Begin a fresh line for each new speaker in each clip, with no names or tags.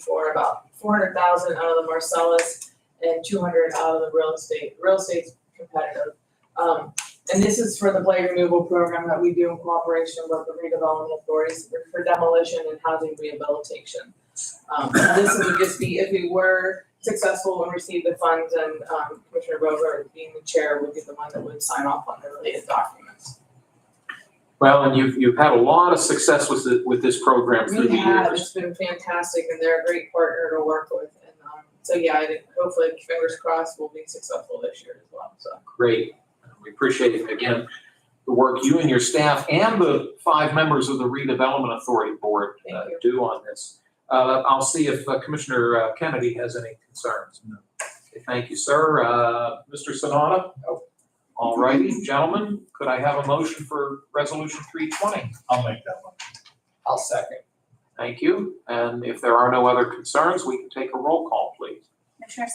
for about four hundred thousand out of the Marcellus and two hundred out of the real estate, real estate's competitive. Um, and this is for the blight removal program that we do in cooperation with the redevelopment authorities for- for demolition and housing rehabilitation. Um, this would just be if we were successful and received the funds and, um, Commissioner Rover being the chair would be the one that would sign off on the related documents.
Well, and you've, you've had a lot of success with, the- with this program through the
We have,
years.
it's been fantastic and they're a great partner to work with and um so yeah, I think hopefully fingers crossed we'll be successful this year as well, so.
Great. We appreciate, again, the work you and your staff and the five members of the redevelopment authority board uh,
Thank you.
do on this. Uh, I'll see if uh, Commissioner uh, Kennedy has any concerns.
No.
Okay, Thank you, sir. Uh, Mr. Sanada? All righty, gentlemen, could I have a motion for resolution three twenty?
I'll make that one.
I'll second.
Thank you. And if there are no other concerns, we can take a roll call, please.
Commissioner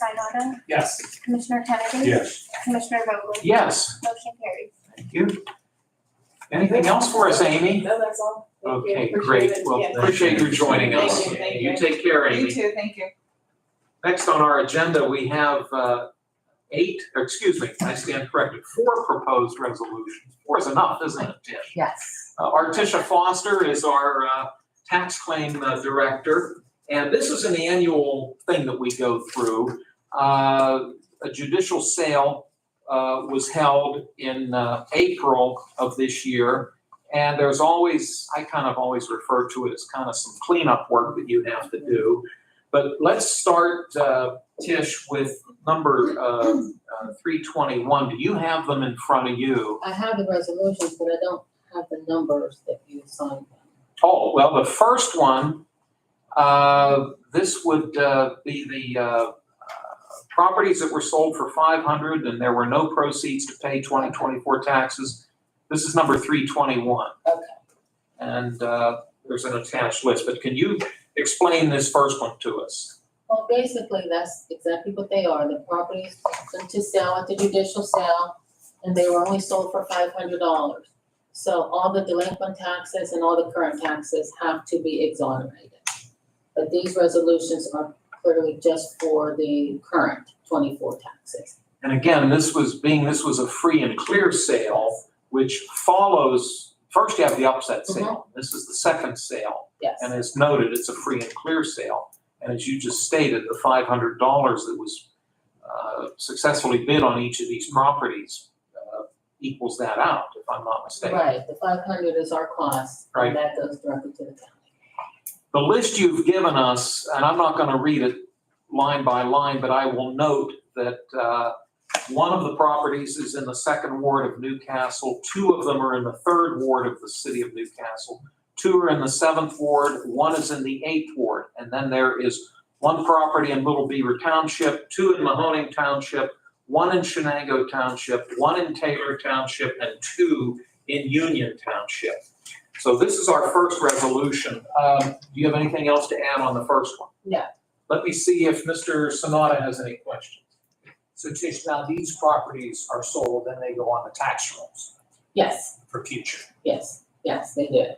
Sinata,
Yes.
Commissioner Kennedy?
Yes.
Commissioner Vogler?
Yes.
Motion carries.
Thank you. Anything else for us, Amy?
No, that's all. Thank you.
Okay,
Appreciate
great.
it.
Well,
Yeah.
appreciate you joining us.
Thank you, thank you.
take care,
You
Amy.
too, thank you.
Next on our agenda, we have uh, eight, or excuse me, I stand corrected, four proposed resolutions. Four is enough, isn't it, Tish?
Yes.
Uh, Artisha Foster is our uh, tax claim uh, director, and this is an annual thing that we go through. Uh, A judicial sale uh, was held in uh, April of this year, and there's always, I kind of always refer to it as kind of some cleanup work that you have to do. But let's start, uh, Tish, with number uh, uh, 321. Do you have them in front of you?
I have the resolutions, but I don't have the numbers that you assigned them.
Oh, well, the first one, uh, this would uh, be the uh, uh, properties that were sold for 500 and there were no proceeds to pay 2024 taxes. This is number 321.
Okay.
And uh, there's an attached list, but can you explain this first one to us?
Well, basically, that's exactly what they are. The properties went to sell at the judicial sale, and they were only sold for five hundred dollars. So all the delinquent taxes and all the current taxes have to be exonerated. But these resolutions are clearly just for the current twenty-four taxes.
And again, this was, being this was a free and clear sale, which follows, first you have the upset sale. This is the second sale.
Yes.
And as noted, it's a free and clear sale. And as you just stated, the five hundred dollars that was uh, successfully bid on each of these properties uh, equals that out, if I'm not mistaken.
Right, the five hundred is our cost,
Right.
and that goes directly to the county.
The list you've given us, and I'm not going to read it line by line, but I will note that uh, one of the properties is in the second ward of Newcastle, two of them are in the third ward of the city of Newcastle, two are in the seventh ward, one is in the eighth ward, and then there is one property in Little Beaver Township, two in Mahoning Township, one in Shenango Township, one in Taylor Township, and two in Union Township. So this is our first resolution. Um, Do you have anything else to add on the first one?
No.
Let me see if Mr. Sanada has any questions.
So Tish, now these properties are sold, then they go on the tax rolls
Yes.
for future.
Yes, yes, they did.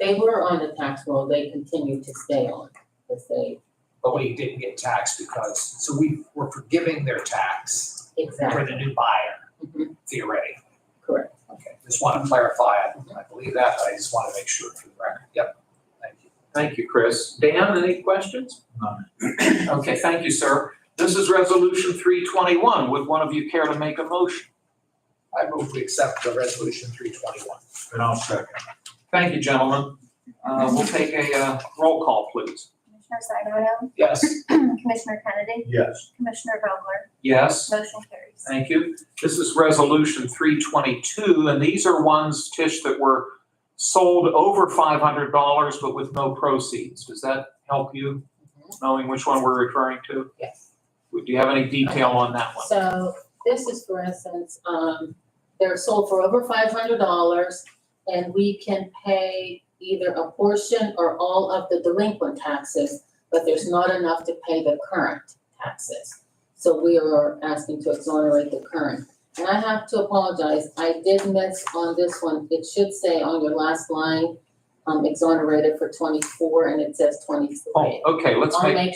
They were on the tax roll, they continue to stay on, because they,
But we didn't get taxed because, so we were forgiving their tax for
exactly,
the new buyer
Mhm.
theoretically.
correct.
Okay, just want to clarify. I I believe that, but I just want to make sure for the record. Yep. Thank you.
Thank you, Chris. Dan, any questions?
None.
Okay, thank you, sir. This is Resolution 321. Would one of you care to make a motion?
I move we accept the resolution three twenty-one.
And I'll second.
Thank you, gentlemen. Uh, We'll take a uh, roll call, please.
Commissioner Sinata,
Yes.
Commissioner Kennedy,
Yes.
Commissioner Vogler?
Yes?
Motion carries.
Thank you. This is Resolution 322, and these are ones, Tish, that were sold over $500 but with no proceeds. Does that help you, knowing which one we're referring to?
Yes.
Do you have any detail on that one?
So this is, for instance, um, they're sold for over five hundred dollars, and we can pay either a portion or all of the delinquent taxes, but there's not enough to pay the current taxes. So we are asking to exonerate the current. And I have to apologize, I did miss on this one, it should say on your last line, um, exonerated for twenty-four and it says twenty-three.
Oh, okay, let's
I'll
make
make